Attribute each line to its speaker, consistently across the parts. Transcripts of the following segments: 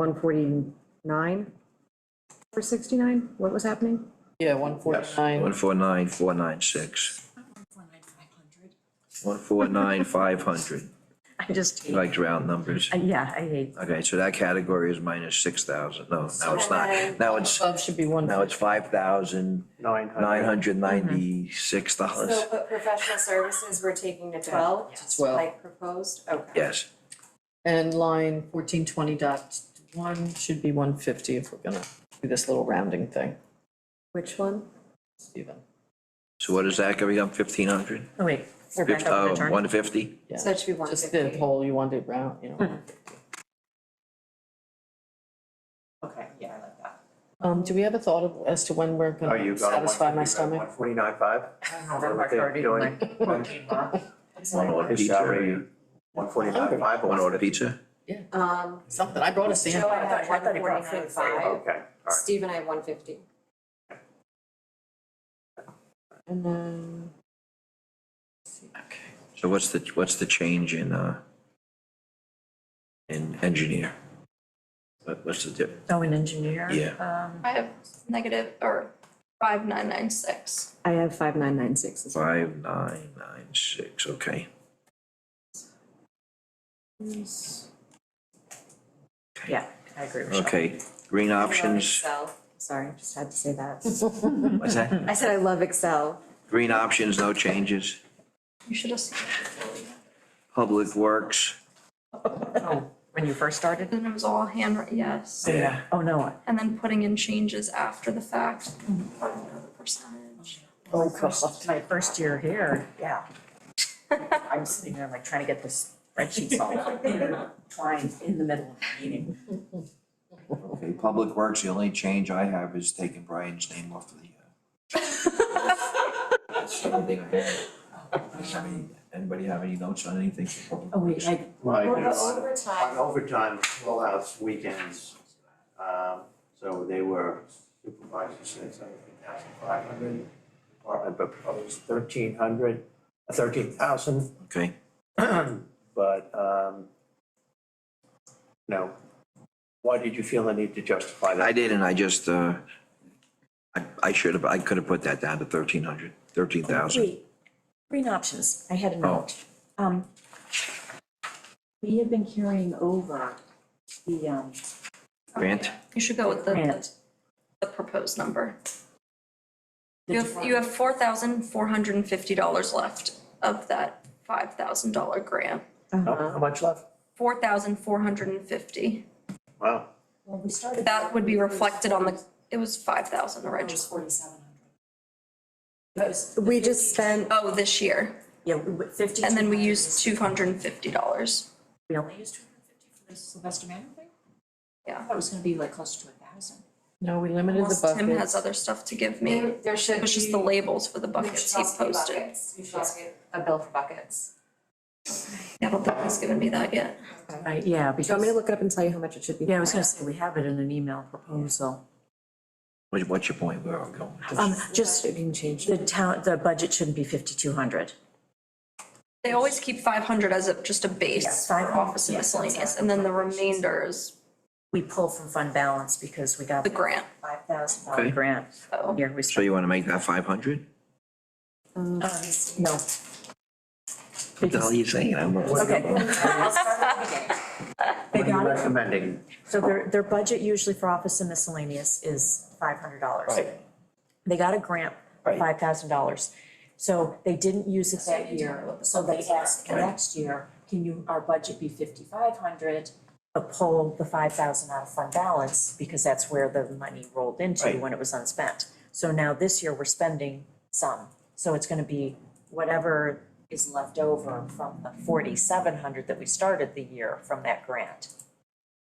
Speaker 1: one forty-nine? Four sixty-nine, what was happening?
Speaker 2: Yeah, one forty-nine,
Speaker 3: One four nine, four nine six. One four nine, five hundred.
Speaker 1: I just,
Speaker 3: You like round numbers.
Speaker 1: I- yeah, I hate,
Speaker 3: Okay, so that category is minus six thousand. No, now it's not. Now it's,
Speaker 2: above should be one.
Speaker 3: now it's five thousand
Speaker 4: Nine hundred.
Speaker 3: nine hundred ninety-six dollars.
Speaker 5: So, but professional services, we're taking to twelve?
Speaker 2: To 12.
Speaker 5: Like proposed, okay.
Speaker 3: Yes,
Speaker 2: And line fourteen twenty dot one should be one fifty if we're gonna do this little rounding thing,
Speaker 5: Which one?
Speaker 2: Stephen.
Speaker 3: so what is that going up fifteen hundred?
Speaker 1: oh wait, we're back up on the
Speaker 3: Oh,
Speaker 1: chart.
Speaker 3: one fifty?
Speaker 2: Yeah.
Speaker 5: So it should be one
Speaker 2: Just the
Speaker 5: fifty. Hmm.
Speaker 2: whole, you want it round, you know. 150.
Speaker 5: Okay, yeah, I like that.
Speaker 2: Um, do we have a thought of, as to when we're
Speaker 4: Oh, you
Speaker 2: gonna
Speaker 4: got a
Speaker 2: satisfy my
Speaker 4: One
Speaker 2: stomach?
Speaker 4: forty-nine five?
Speaker 3: One order pizza.
Speaker 4: One oh forty-nine five.
Speaker 3: One order pizza.
Speaker 5: Um,
Speaker 2: Something, I brought a
Speaker 5: Joe,
Speaker 2: sandwich.
Speaker 5: I have
Speaker 1: I thought
Speaker 5: one
Speaker 1: he brought it
Speaker 5: forty-nine
Speaker 1: up.
Speaker 4: Okay, all
Speaker 5: five,
Speaker 4: right.
Speaker 5: Steve and I have one fifty.
Speaker 2: And then. Okay.
Speaker 3: So what's the, what's the change in, uh, in engineer? What, what's the dip?
Speaker 1: Oh, an engineer?
Speaker 3: Yeah.
Speaker 1: Um,
Speaker 6: I have negative or five nine nine six.
Speaker 1: I have five nine nine six as well.
Speaker 3: Five nine nine six, okay.
Speaker 1: Yeah, I agree with you.
Speaker 3: Okay, green
Speaker 5: I love
Speaker 3: options,
Speaker 5: Excel, sorry, I just had to say that.
Speaker 3: what's that?
Speaker 5: I said I love Excel.
Speaker 3: Green options, no changes.
Speaker 6: You should have seen it before we met.
Speaker 3: Public works,
Speaker 1: Oh, when you first started?
Speaker 6: Then it was all handwritten, yes.
Speaker 3: yeah,
Speaker 1: Oh, no,
Speaker 6: And then putting in changes after the fact. I don't know the percentage.
Speaker 1: oh, gosh, my first year here, yeah. I'm sitting there like trying to get this spreadsheet solved, trying in the middle of the meeting.
Speaker 3: okay, public works, the only change I have is taking Brian's name off of the. uh, That's the only thing I have. Does any- Anybody have any notes on anything? for public
Speaker 1: Oh, wait,
Speaker 3: works?
Speaker 1: I,
Speaker 4: Right,
Speaker 5: Well,
Speaker 4: you
Speaker 5: the
Speaker 4: know, on- on
Speaker 5: overtime,
Speaker 4: overtime, full house weekends, um, so they were supervisors, said something, thousand five hundred. Department proposed thirteen hundred, uh, thirteen thousand.
Speaker 3: Okay,
Speaker 4: But, um, you know, why did you feel the need to justify that?
Speaker 3: I didn't, I just, uh, I, I should have, I could have put that down to thirteen hundred, thirteen thousand.
Speaker 1: Wait, green options, I had a
Speaker 3: Oh.
Speaker 1: note. Um, we have been carrying over the, um,
Speaker 3: Grant,
Speaker 6: You should go with the- the,
Speaker 1: grant.
Speaker 6: the proposed number.
Speaker 1: the
Speaker 6: You have, you have four thousand four hundred and fifty dollars left of that five thousand dollar grant.
Speaker 4: No,
Speaker 2: Uh-huh.
Speaker 4: How much left?
Speaker 6: Four thousand four hundred and fifty.
Speaker 4: Wow,
Speaker 1: Well, we started.
Speaker 6: That would be reflected on the, it was five thousand originally.
Speaker 5: we just spent,
Speaker 6: Oh, this year.
Speaker 1: Yeah, we went fifty.
Speaker 6: And then we used two hundred and fifty dollars.
Speaker 1: We only used two
Speaker 6: Yeah.
Speaker 1: hundred and fifty for the Sylvester Manor thing? I thought it was gonna be like close to a thousand.
Speaker 2: No, we limited the
Speaker 6: Unless Tim has
Speaker 2: buckets.
Speaker 6: other stuff to give me.
Speaker 5: there, there should be.
Speaker 6: It was just the labels for the
Speaker 5: we
Speaker 6: buckets
Speaker 5: should
Speaker 6: he
Speaker 5: also be
Speaker 6: posted.
Speaker 5: buckets. We should also get a bill for buckets.
Speaker 6: Yeah, I don't think he's given me that yet.
Speaker 1: Right, yeah,
Speaker 5: Do you want me
Speaker 1: because,
Speaker 5: to look it up and tell you how much it should be?
Speaker 1: yeah, I was gonna say, we have it in an email proposal.
Speaker 3: what, what's your point, where are we going?
Speaker 1: Um, just,
Speaker 5: It didn't change.
Speaker 1: the town, the budget shouldn't be fifty-two hundred.
Speaker 6: They always keep five hundred as a, just a base
Speaker 1: Yes, 500,
Speaker 6: for office and
Speaker 1: yes, that's
Speaker 6: miscellaneous,
Speaker 1: our
Speaker 6: and then the remainder is
Speaker 1: We pull from fund balance because we got
Speaker 6: the grant.
Speaker 1: five thousand
Speaker 3: Okay.
Speaker 1: dollar grant.
Speaker 6: Oh.
Speaker 1: Here we
Speaker 3: So
Speaker 1: start. Um,
Speaker 3: you wanna make that five hundred?
Speaker 1: No.
Speaker 3: What the hell are you saying? I'm-
Speaker 1: Okay. They
Speaker 4: what are you
Speaker 1: got it.
Speaker 4: recommending?
Speaker 1: So their, their budget usually for office and miscellaneous is five hundred dollars. They got a grant for
Speaker 3: Right.
Speaker 1: five thousand dollars. So they didn't use it that year, so they asked the
Speaker 3: Right.
Speaker 1: next year, can you, our budget be fifty-five hundred? But pull the five thousand out of fund balance, because that's where the money rolled into
Speaker 3: Right.
Speaker 1: when it was unspent. So now this year, we're spending some, so it's gonna be whatever is left over from the forty-seven hundred that we started the year from that grant.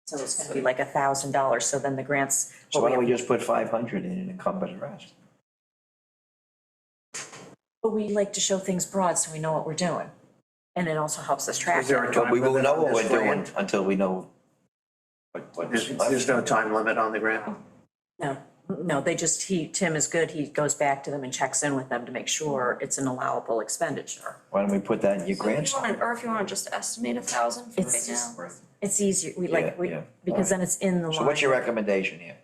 Speaker 1: So it's gonna be like a thousand dollars, so then the grants,
Speaker 3: So why don't we just put five hundred in and encumber the rest?
Speaker 1: But we like to show things broad so we know what we're doing. And it also helps us track.
Speaker 4: Is there a
Speaker 3: But
Speaker 4: time
Speaker 3: we won't
Speaker 4: limit
Speaker 3: know
Speaker 4: on
Speaker 3: what
Speaker 4: this
Speaker 3: we're doing
Speaker 4: grant?
Speaker 3: until we know what, what's
Speaker 4: There's, there's no time limit on the grant?
Speaker 1: No, no, they just, he, Tim is good, he goes back to them and checks in with them to make sure it's an allowable expenditure.
Speaker 3: Why don't we put that in your
Speaker 6: So if you
Speaker 3: grants?
Speaker 6: wanna- Or if you wanna just estimate a thousand for
Speaker 1: It's
Speaker 6: right now.
Speaker 3: Right.
Speaker 1: It's easier, we
Speaker 3: Yeah,
Speaker 1: like, we,
Speaker 3: yeah.
Speaker 1: because then it's in the line.
Speaker 3: So what's your recommendation here?